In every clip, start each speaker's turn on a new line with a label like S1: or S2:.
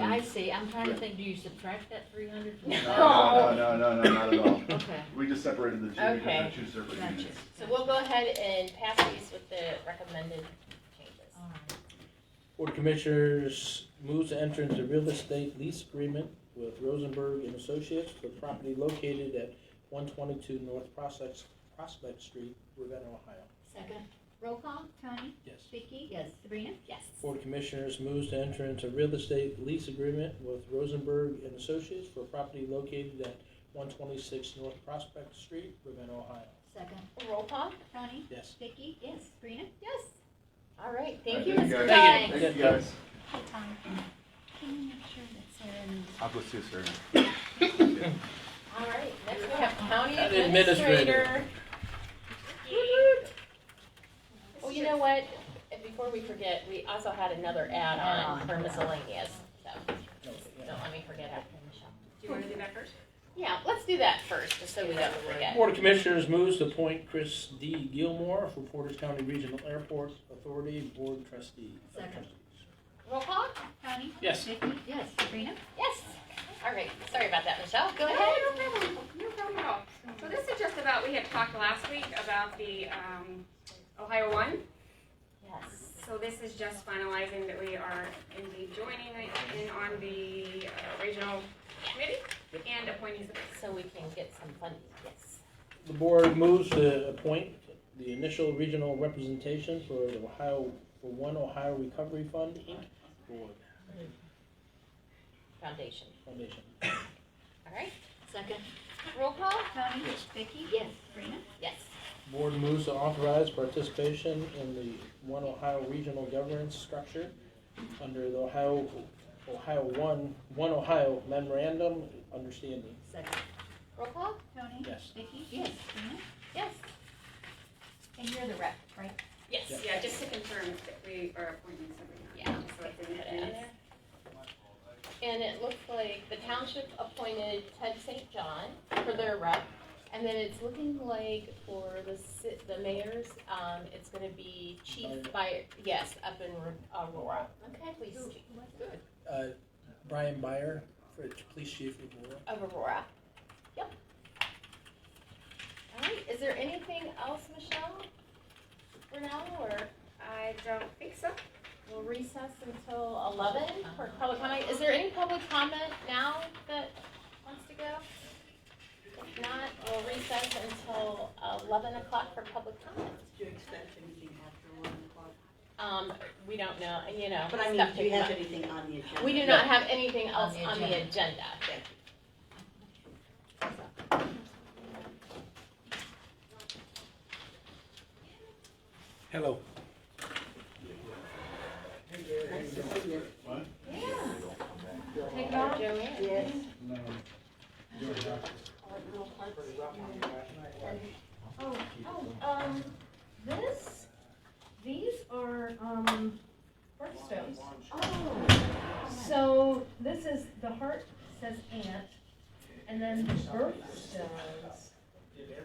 S1: I
S2: and-
S1: see, I'm trying to think, do you subtract that three hundred from?
S2: No, no, no, no, no, no, not at all.
S1: Okay,
S2: We just separated the two because they're
S1: Okay.
S2: two separate
S1: gotcha.
S2: units.
S3: So we'll go ahead and pass these with the recommended changes.
S1: All right.
S4: Board of Commissioners moves to enter into real estate lease agreement with Rosenberg and Associates for property located at one twenty-two North Prospect, Prospect Street, Ravenna, Ohio.
S1: Second?
S5: Roll call, Tony,
S4: Yes.
S5: Vicky.
S1: Yes.
S5: Sabrina.
S3: Yes.
S4: Board of Commissioners moves to enter into real estate lease agreement with Rosenberg and Associates for property located at one twenty-six North Prospect Street, Ravenna, Ohio.
S5: Second.
S3: Roll call?
S5: Tony,
S4: Yes.
S5: Vicky.
S1: Yes.
S5: Sabrina.
S3: Yes. All right, thank
S2: Alright,
S3: you, Mr.
S2: guys.
S3: Dunn.
S2: Thank you, guys.
S5: Hey, Tony. Can you make sure that Sarah knows?
S2: I'll go see Sarah.
S3: All right, next we have county
S4: County administrator.
S3: administrator. Oh, you know what? And Before we forget, we also had another add-on for miscellaneous, so don't let me forget it.
S6: Do you want to do that first?
S3: Yeah, let's do that first, just so we don't forget.
S4: Board of Commissioners moves to appoint Chris D. Gilmore for Portage County Regional Airport Authority Board Trustee.
S1: Second.
S3: Roll call?
S5: Tony,
S4: Yes.
S5: Vicky,
S1: Yes.
S5: Sabrina.
S3: Yes. All right, sorry about that, Michelle. Go
S6: No,
S3: ahead.
S6: No problem, no problem at all. So this is just about, we had talked last week about the um, Ohio One.
S3: Yes.
S6: So this is just finalizing that we are indeed joining in on the uh, regional committee and appointing some.
S3: So we can get some funding, yes.
S4: The board moves to appoint the initial regional representation for the Ohio, for One Ohio Recovery Fund, Inc. Board
S3: Foundation,
S4: Foundation.
S3: all right?
S1: Second?
S3: Roll call?
S5: Tony,
S4: Yes.
S5: Vicky.
S1: Yes.
S5: Sabrina.
S3: Yes.
S4: Board moves to authorize participation in the One Ohio Regional Governance Structure under the Ohio, Ohio One, One Ohio Memorandum of Understanding.
S1: Second?
S3: Roll call?
S5: Tony,
S4: Yes.
S5: Vicky.
S1: Yes.
S5: Sabrina.
S3: Yes.
S5: And you're the rep, right?
S3: Yes.
S6: Yeah, just to confirm that we are appointing somebody.
S3: Yeah,
S6: Just so it's in
S3: Put
S6: the
S3: it on
S6: minutes.
S3: there. And it looks like the township appointed Ted St. John for their rep. And then it's looking like for the ci- the mayors, um, it's gonna be chief by, yes, up in Ro- Aurora. Okay, please, chief
S5: Good.
S4: Uh, Brian Byer, for Police Chief of Aurora.
S3: of Aurora. Yep. All right, is there anything else, Michelle? For now, or?
S6: I don't think so.
S3: We'll recess until eleven for public comment. Is there any public comment now that wants to go? If not, we'll recess until eleven o'clock for public comment.
S7: Do you expect anything after one o'clock?
S3: Um, we don't know, you know.
S7: But I mean,
S3: stuff
S7: do you
S3: to
S7: have
S3: come
S7: anything on the
S3: up.
S7: agenda?
S3: We do not have anything
S1: On
S3: else
S1: the
S3: on the agenda.
S7: Thank you.
S4: Hello.
S7: Nice to see you.
S3: Take it off, Joanne.
S7: Yes.
S8: Oh, oh, um, this, these are, um, birthstones.
S7: Oh,
S8: So this is, the heart says aunt, and then the birthstones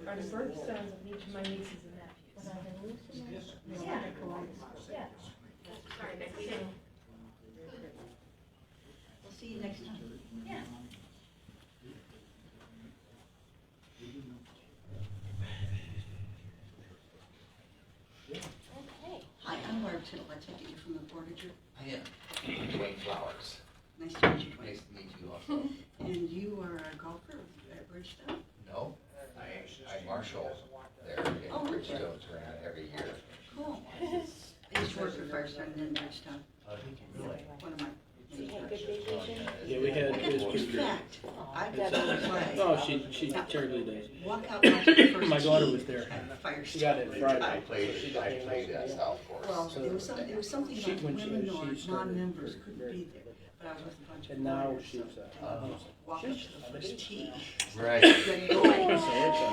S8: are the birthstones of each of my nieces and nephews. Yeah, yeah.
S6: Sorry, Nick, we didn't
S7: we'll see you next time.
S8: Yeah.
S3: Okay.
S7: Hi, I'm Barb Tittle. I take it you're from the Portager.
S9: I am Dwayne Flowers.
S7: Nice to meet you,
S9: Nice
S7: Dwayne.
S9: to meet you also.
S7: And you are a golfer at Bridgestone?
S9: No, I, I marshal there in
S7: Oh, okay.
S9: Bridgestone tournament every year.
S7: Cool. I used to work for Firestone and then Bridgestone.
S9: Oh, Really?
S7: One of my
S3: Did you
S7: many
S3: have a
S7: jobs.
S3: good vacation?
S4: Yeah, we had- it was
S7: In fact, I got to play
S4: Oh, she, she terribly does.
S7: walkout match for the first
S4: My daughter
S7: tee
S4: was there.
S7: at Firestone.
S4: She got it
S9: I
S4: Friday.
S9: played, I played at South
S7: Well,
S9: Course.
S7: there was something, there was something
S4: She-
S7: about
S4: when she-
S7: women
S4: she
S7: or
S4: started-
S7: non-members couldn't be there, but I was with a bunch of
S4: And now
S7: lawyers,
S4: she's,
S7: so
S4: uh,
S7: walk up to the first tee.
S9: Right,
S7: Then go in.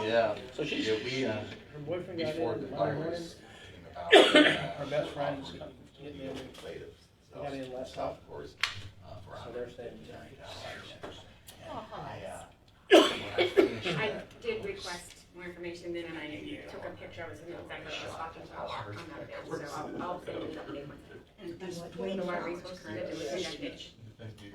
S9: yeah.
S4: so she's,
S9: Yeah, we, uh,
S4: her boyfriend got in
S9: before the
S4: Monday morning.
S9: virus came about. uh, Our
S4: Her best friend's come- getting in.
S9: Played at
S4: Got in
S9: South-
S4: last
S9: South Course. uh, for
S4: So they're staying in town.
S9: $150. And
S3: Oh,
S9: I,
S3: nice.
S9: uh, when I finished
S6: I
S9: that,
S6: did request more information then, and I took a picture, I was in the back of the stocking shop, I'm not there, so I'll, I'll send you an update.
S7: And it was
S6: I
S7: Dwayne
S6: don't know what
S7: Flowers,
S6: resources
S7: correct?
S6: it was, I did.
S9: I did